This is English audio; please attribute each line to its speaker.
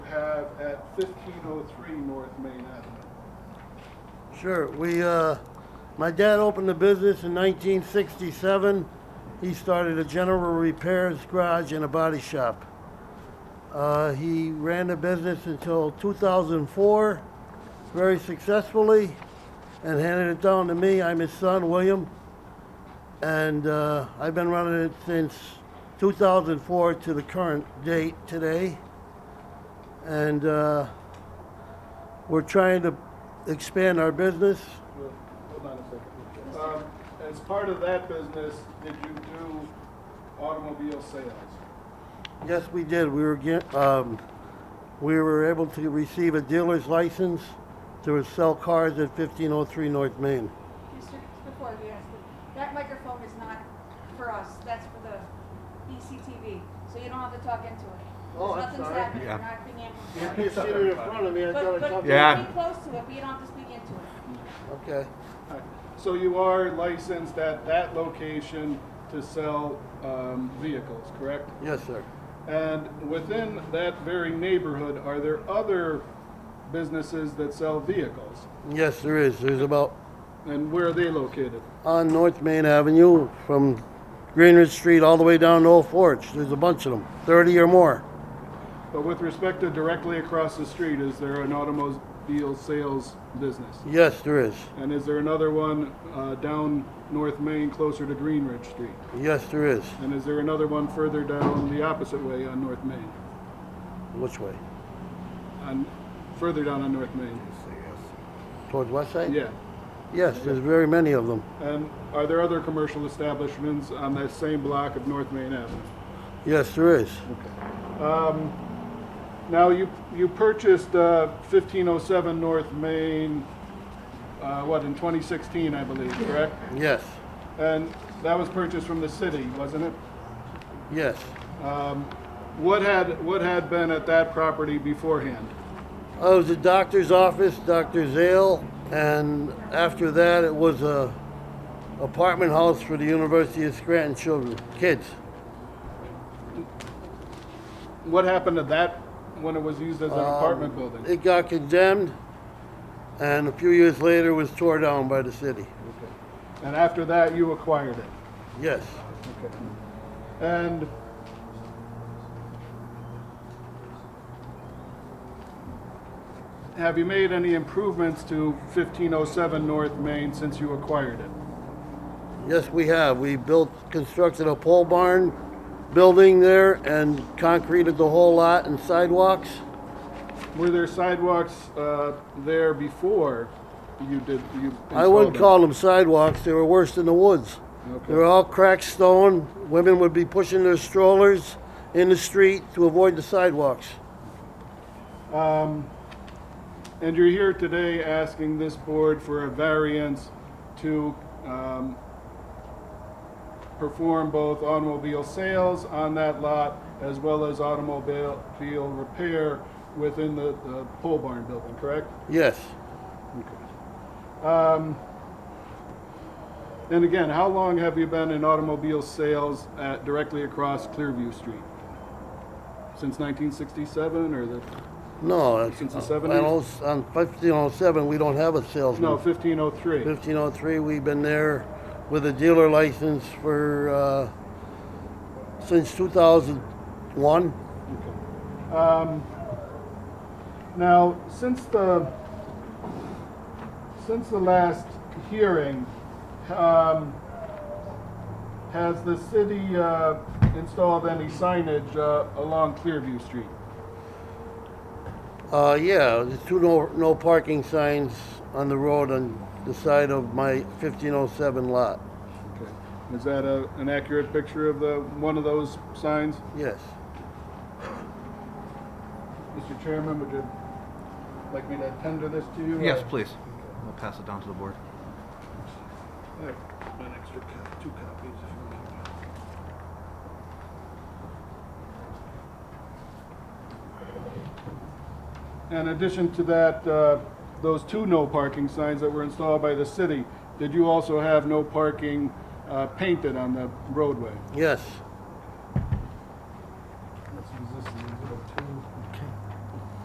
Speaker 1: at fifteen oh three North Main Avenue.
Speaker 2: Sure, we, uh, my dad opened the business in 1967. He started a general repairs garage and a body shop. Uh, he ran the business until 2004, very successfully, and handed it down to me. I'm his son, William, and uh, I've been running it since 2004 to the current date today. And uh, we're trying to expand our business.
Speaker 1: Well, Hold on a second. Um, As part of that business, did you do automobile sales?
Speaker 2: Yes, we did. We were get, um, we were able to receive a dealer's license to sell cars at 1503 North Main.
Speaker 3: Mr. Before you ask, that microphone is not for us, that's for the E ECTV, so you don't have to talk into it.
Speaker 2: Oh, I'm
Speaker 3: There's nothing's
Speaker 2: sorry.
Speaker 3: happening,
Speaker 4: Yeah.
Speaker 3: you're not being
Speaker 2: You
Speaker 3: amplified.
Speaker 2: can see it in front of me. I thought
Speaker 3: But,
Speaker 2: I
Speaker 3: but
Speaker 2: talked.
Speaker 4: Yeah.
Speaker 3: be close to it, but you don't have to speak into it.
Speaker 2: Okay.
Speaker 1: Alright, So you are licensed at that location to sell um, vehicles, correct?
Speaker 2: Yes, sir.
Speaker 1: And within that very neighborhood, are there other businesses that sell vehicles?
Speaker 2: Yes, there is. There's about
Speaker 1: And where are they located?
Speaker 2: on North Main Avenue from Greenridge Street all the way down to Old Forge. There's a bunch of them, 30 or more.
Speaker 1: But with respect to directly across the street, is there an automobile sales business?
Speaker 2: Yes, there is.
Speaker 1: And is there another one uh, down North Main closer to Greenridge Street?
Speaker 2: Yes, there is.
Speaker 1: And is there another one further down the opposite way on North Main?
Speaker 2: Which way?
Speaker 1: On, further down on North Main?
Speaker 2: Towards West Side?
Speaker 1: Yeah.
Speaker 2: Yes, there's very many of them.
Speaker 1: And are there other commercial establishments on that same block of North Main Avenue?
Speaker 2: Yes, there is.
Speaker 1: Now, you, you purchased uh, 1507 North Main, uh, what, in 2016, I believe, correct?
Speaker 2: Yes.
Speaker 1: And that was purchased from the city, wasn't it?
Speaker 2: Yes.
Speaker 1: What had, what had been at that property beforehand?
Speaker 2: I was a doctor's office, Dr. Zale, and after that it was a apartment house for the University of Scranton children, kids.
Speaker 1: What happened to that when it was used as an apartment building?
Speaker 2: Um, It got condemned, and a few years later was tore down by the city.
Speaker 1: And after that, you acquired it?
Speaker 2: Yes,
Speaker 1: Okay. And have you made any improvements to 1507 North Main since you acquired it?
Speaker 2: yes, we have. We built, constructed a pole barn building there and concreted the whole lot and sidewalks.
Speaker 1: Were there sidewalks uh, there before you did, you installed
Speaker 2: I wouldn't
Speaker 1: it?
Speaker 2: call them sidewalks, they were worse than the woods. They were
Speaker 1: Okay.
Speaker 2: all cracked stone. Women would be pushing their strollers in the street to avoid the sidewalks.
Speaker 1: And you're here today asking this board for a variance to um, perform both automobile sales on that lot as well as automobile automobile repair within the the pole barn building, correct?
Speaker 2: Yes.
Speaker 1: Um, And again, how long have you been in automobile sales at, directly across Clearview Street? Since 1967 or the,
Speaker 2: No, it's,
Speaker 1: Since the
Speaker 2: uh,
Speaker 1: 70s?
Speaker 2: on those- on 1507, we don't have a salesman.
Speaker 1: no, 1503?
Speaker 2: 1503, we've been there with a dealer license for, uh, since 2001.
Speaker 1: Um, Now, since the, since the last hearing, um, has the city uh, installed any signage uh, along Clearview Street?
Speaker 2: Uh, yeah, there's two no, no parking signs on the road on the side of my 1507 lot.
Speaker 1: Okay. Is that a, an accurate picture of the, one of those signs?
Speaker 2: Yes.
Speaker 1: Mr. Chairman, would you like me to tender this to you? uh,
Speaker 4: Yes,
Speaker 1: or-
Speaker 4: please. I'll pass it down to the board.
Speaker 1: An extra cop, two copies if you want. In addition to that, uh, those two no parking signs that were installed by the city, did you also have no parking uh, painted on the roadway?
Speaker 2: Yes.